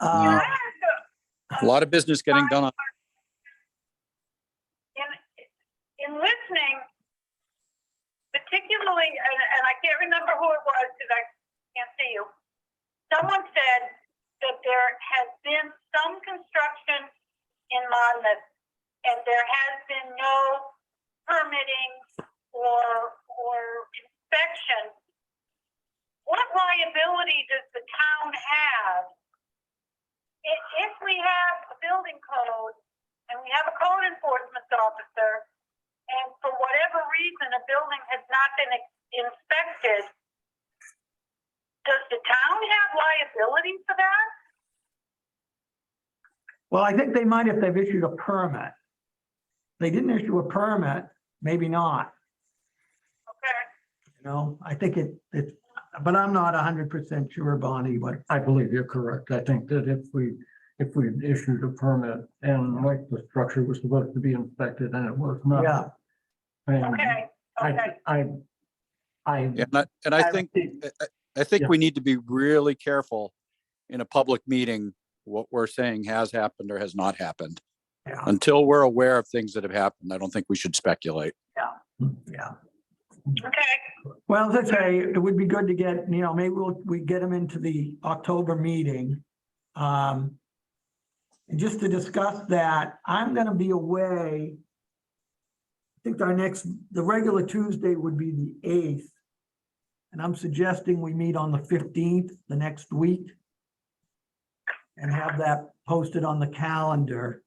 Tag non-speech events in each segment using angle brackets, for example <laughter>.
Uh, I have to, A lot of business getting done on in, in listening, particularly, and, and I can't remember who it was because I can't see you. Someone said that there has been some construction in Monmouth and there has been no permitting or, or inspection. What liability does the town have? If, if we have a building code and we have a code enforcement officer, and for whatever reason, a building has not been inspected, does the town have liability for that? well, I think they might if they've issued a permit. They didn't issue a permit, maybe not, Okay, you know, I think it, it, but I'm not hundred percent sure, Bonnie, but I believe you're correct. I think that if we, if we issued a permit and like the structure was supposed to be inspected and it was not. yeah, and okay, okay. I, I, I. And I, and I think, I- I- I think Yeah. we need to be really careful in a public meeting, what we're saying has happened or has not happened. yeah, Until we're aware of things that have happened, I don't think we should speculate. yeah. Okay, Well, as I say, it would be good to get, you know, maybe we'll, we get them into the October meeting. Um, and just to discuss that, I'm gonna be away. I think our next, the regular Tuesday would be the eighth. And I'm suggesting we meet on the fifteenth, the next week. And have that posted on the calendar.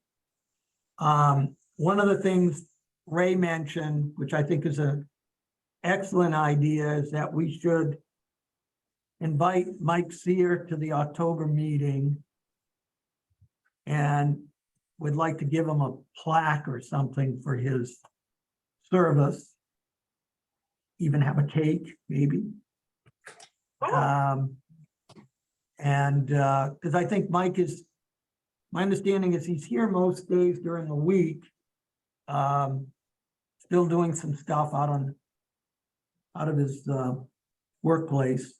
Um, one of the things Ray mentioned, which I think is a excellent idea is that we should invite Mike Seer to the October meeting. And would like to give him a plaque or something for his service. Even have a cake, maybe. cool. Uh, Um, and, uh, cause I think Mike is, my understanding is he's here most days during the week. Um, still doing some stuff out on, out of his, uh, workplace.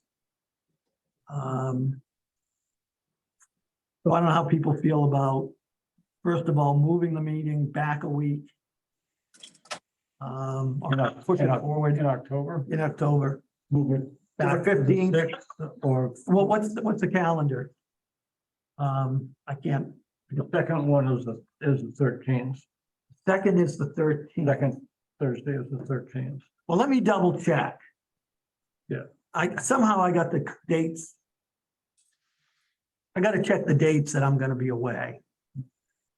Um. So I don't know how people feel about, first of all, moving the meeting back a week. Um, or In Oc- pushing in it Oc- forward In October, in October. move it To the back to the 15th. 6th Or Well, what's, the- what's the calendar? Um, I can't, the second one is the, is the thirteenth. second is the thirteenth. Second Thursday is the thirteenth. Well, let me double check. Yeah. I, somehow I got the dates. I gotta check the dates that I'm gonna be away.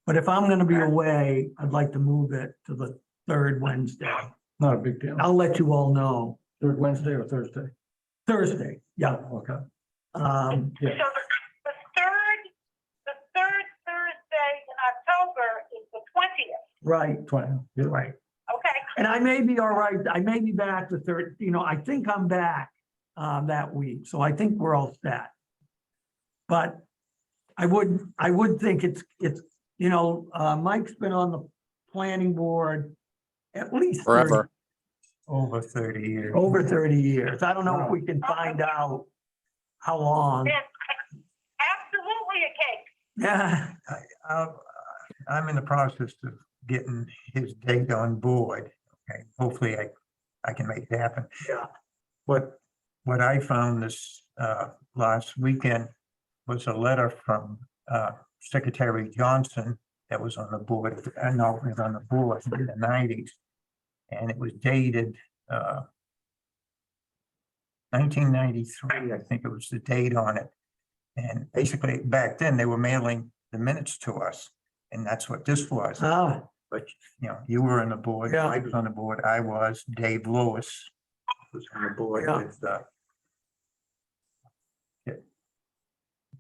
But if I'm gonna be away, I'd like to move it to the third Wednesday. Not a big Oh. deal. I'll let you all know. Third Wednesday or Thursday? Thursday, yeah. Okay. Um, So Yeah, the, the third, the third Thursday in October is the twentieth, right, twenty. yeah. right. okay? And I may be all right, I may be back the third, you know, I think I'm back uh, that week, so I think we're all set. But I would, I would think it's, it's, you know, uh, Mike's been on the planning board at least 30 Forever. Over thirty years. Over thirty years. I don't know if we can find out how long. There's absolutely a cake. Yeah, I- I'll- I'm in the process of getting his date on board. Okay, hopefully I, I can make it happen. Yeah. What, what I found this, uh, last weekend was a letter from, uh, Secretary Johnson that was on the board, I know it was on the board in the nineties. And it was dated, uh, nineteen ninety-three, I think it was the date on it. And basically, back then, they were mailing the minutes to us, and that's what this was. oh, But, you know, you were on the board, Yeah. Mike was on the board, I was, Dave Lewis was on the board Yeah. with, uh,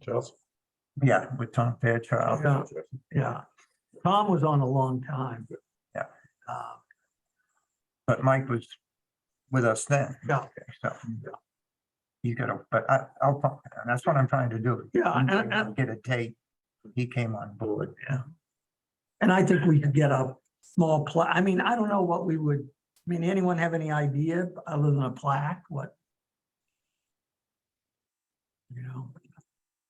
yeah. Yeah, with Tom Fairchild. Yeah. <laughs> yeah. Tom was on a long time. Yeah. Uh, But Mike was with us then. Yeah. So you gotta, but I, I'll, fi- and that's what I'm trying to do. Yeah, and- I'm trying to and- Get a date. He came on board. And I think we could get a small pla, I mean, I don't know what we would, I mean, anyone have any idea other than a plaque, what? You know,